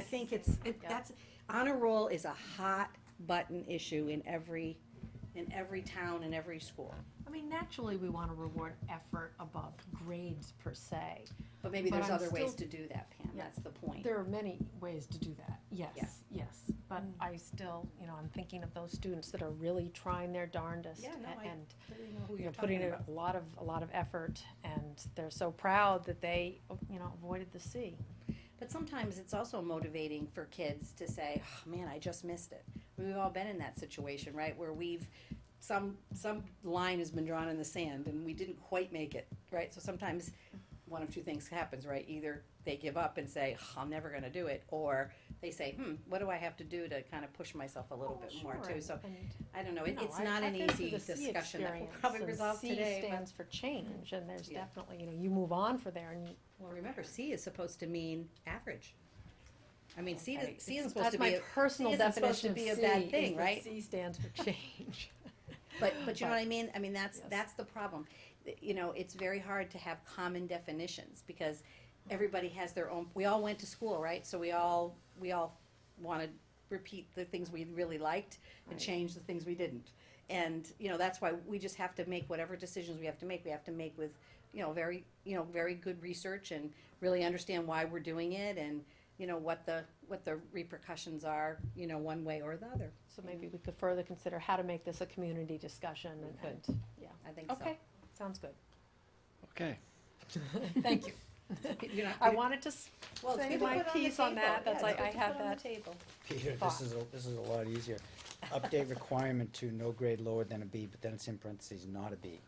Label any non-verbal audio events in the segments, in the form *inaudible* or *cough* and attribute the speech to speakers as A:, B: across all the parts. A: think it's, it,
B: Yeah.
A: that's, honor roll is a hot button issue in every, in every town and every school.
C: I mean, naturally, we want to reward effort above grades per se.
A: But maybe
C: But
A: there's
C: I'm
A: other ways to
C: still-
A: do that, Pam,
C: Yeah.
A: that's the point.
C: There are many ways to do that,
A: Yeah.
C: yes, yes. But I still, you know, I'm thinking of those students that are really trying their darndest
A: Yeah, no,
C: a-
A: I-
C: and,
A: You know who
C: you
A: you're
C: know, putting
A: talking
C: in
A: about.
C: a lot of, a lot of effort and they're so proud that they, you know, avoided the sea.
A: But sometimes it's also motivating for kids to say, oh, "Man, I just missed it." We've all been in that situation, right, where we've some some line has been drawn in the sand and we didn't quite make it, right? So sometimes one of two things happens, right? Either they give up and say, "Oh, "I'm never going to do it," or they say, "Hmm, what do I have to do to kind of push myself a little
C: Oh,
A: bit more
C: sure,
A: too?" So
C: and-
A: I don't know. It,
C: No,
A: it's
C: I-
A: not
C: I've
A: an
C: been through
A: easy
C: the C
A: discussion that we'll
C: experience,
A: probably
C: and
A: resolve
C: C
A: today. but-
C: stands for change, and there's
A: Yeah.
C: definitely, you know, you move on for there, and you,
A: well, remember, C is supposed to mean average. I mean, C,
C: Okay,
A: is C
C: it's-
A: isn't supposed to be.
C: That's
A: a-
C: my personal
A: isn't supposed to
C: definition of
A: be a
C: C,
A: bad
C: is
A: thing,
C: that
A: right?
C: C stands for change. *laughs*
A: But, but you know
C: But-
A: what I mean? I mean, that's,
C: Yes.
A: that's the problem. Th- You know, it's very hard to have common definitions because everybody has their own, we all went to school, right? So we all, we all want to repeat the things we really liked and
C: Right.
A: change the things we didn't. And, you know, that's why we just have to make whatever decisions we have to make, we have to make with, you know, very, you know, very good research and really understand why we're doing it and, you know, what the, what the repercussions are, you know, one way or the other.
C: So maybe we could further consider how to make this a community discussion and-
A: We
C: and,
A: I think so.
C: okay,
A: *laughs*
C: sounds good.
D: Okay.
C: *laughs* Thank you.
A: You're not-
C: I wanted to s-
A: Well, it's
C: say
A: good to
C: my
A: put on the
C: piece on
A: table.
C: that. That's
A: Yeah, it's
C: like,
A: good
C: I
A: to
C: have
A: put on the
C: that.
A: table.
D: Peter,
C: Thought.
D: this is, a- this is a lot easier. Update requirement to no grade lower than a B, but then it's in parentheses, not a B.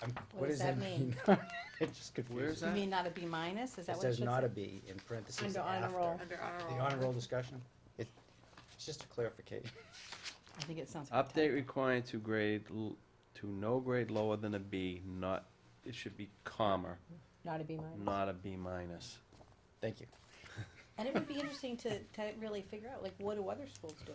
D: I'm- What
A: does
D: does
A: that
D: that mean? *laughs* It's just
E: Where's
D: confusing.
A: You
E: that?
A: mean not a B minus, is that
D: It
A: what it
D: says
A: should
D: not a
A: say?
D: B in parentheses
A: Under honor
D: after.
A: roll.
B: Under
D: The honor roll discussion, it, it's just a clarification. *laughs*
A: I think it sounds. like a
E: *laughs* Update
A: typo.
E: required to grade, l- to no grade lower than a B, not, it should be comma,
C: Not to be mine.
E: not a B minus.
D: Thank you.
A: And it would be interesting to, to really figure out, like, what do other schools do?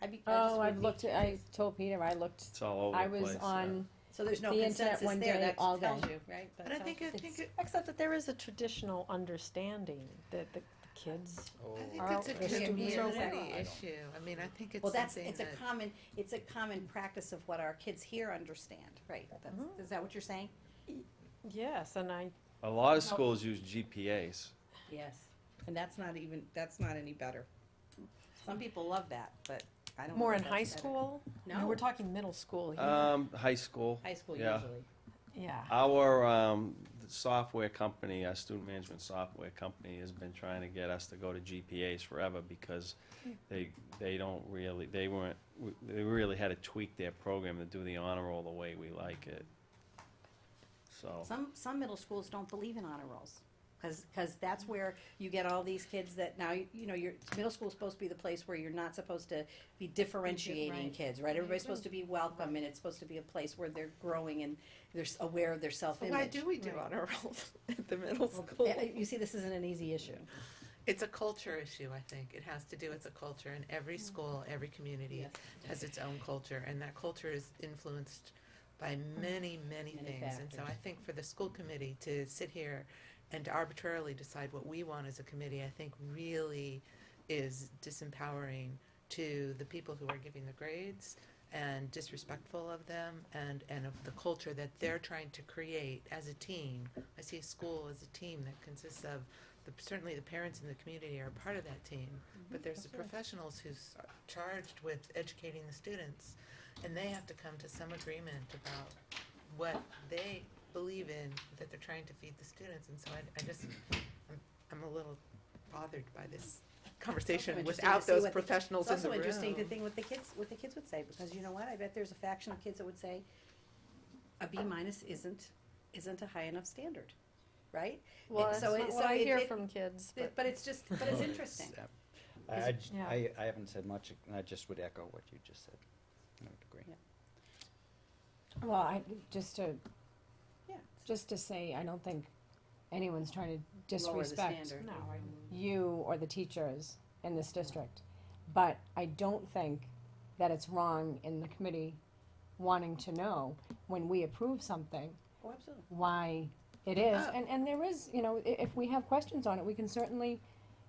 A: I'd be, I just
F: Oh,
A: would
F: I've
A: be
F: looked, at- I
A: curious.
F: told Peter, I looked,
E: It's all over
F: I
E: the place.
F: was on,
A: So there's no
F: the internet
A: consensus
F: one
A: there,
F: day,
A: that
F: all
A: tells
F: day.
A: you, right? That
B: But I
A: tells-
B: think, I think, it-
C: Except that there is a traditional understanding that the the kids,
D: Oh,
B: I think
C: Are
B: it's a
C: the students aware?
B: community issue. I mean, I think it's
A: Well, that's,
B: something
A: it's a
B: that,
A: common, it's a common practice of what our kids here understand, right? That's,
F: Mm-hmm.
A: is that what you're saying?
C: yes, and I,
E: A lot of schools use GPAs.
A: Yes. And that's not even, that's not any better. Some people love that, but I don't. know
C: more
A: if
C: in
A: that's
C: high
A: better.
C: school?
A: No.
C: We're talking middle school here.
E: Um, high school.
A: High school
E: yeah.
A: usually.
C: Yeah.
E: Our um, software company, our student management software company, has been trying to get us to go to GPAs forever because they they don't really they weren't they really had to tweak their program to do the honor roll the way we like it. So
A: Some, some middle schools don't believe in honor rolls, because, that's where you get all these kids that now, you know, your, middle school's supposed to be the place where you're not supposed to be differentiating
B: right.
A: kids, right? Everybody's supposed to be welcome, and it's supposed to be a place where they're growing and they're s- aware of their
B: So why
A: self-image.
B: do we do honor rolls *laughs* at the middle school?
A: Yeah, You see, this isn't an easy issue.
B: It's a culture issue, I think. It has to do with the culture, and every school, every community has its own culture, and that culture is influenced by many, many
A: Many
B: things. And so I
A: factors.
B: think for the school committee to sit here and to arbitrarily decide what we want as a committee, I think really is disempowering to the people who are giving the grades and disrespectful of them and, and of the culture that they're trying to create as a team. I see a school as a team that consists of the, certainly the parents in the community are a part of that team, but there's the professionals who's charged with educating the students, and they have to come to some agreement about what they believe in that they're trying to feed the students. And so I, I just, I'm, I'm a little bothered by this
A: Also
B: conversation
A: interesting to
B: without
A: see
B: those
A: what the- It's
B: professionals in the
A: also
B: room.
A: interesting to think what the kids, what the kids would say, because you know what, I bet there's a faction of kids that would say, a B minus isn't, isn't a high enough standard, right?
C: Well,
A: And
C: that's
A: so it-
C: not what
A: so
C: I
A: it-
C: hear
A: it-
C: from kids, but.
A: But it's just, but it's interesting.
B: *laughs*
D: I, I j-
C: Yeah.
D: I- I haven't said much, and I just would echo what you just said. I would agree.
F: well, I, just to,
A: Yeah.
F: just to say, I don't think anyone's trying to disrespect
C: No, I-
F: you or the teachers in this district. But I don't think that it's wrong in the committee wanting to know when we approve something,
A: Oh, absolutely.
F: why it is.
B: Oh.
F: And, and there is, you know, i- if we have questions on it, we can certainly,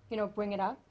F: you know, bring it up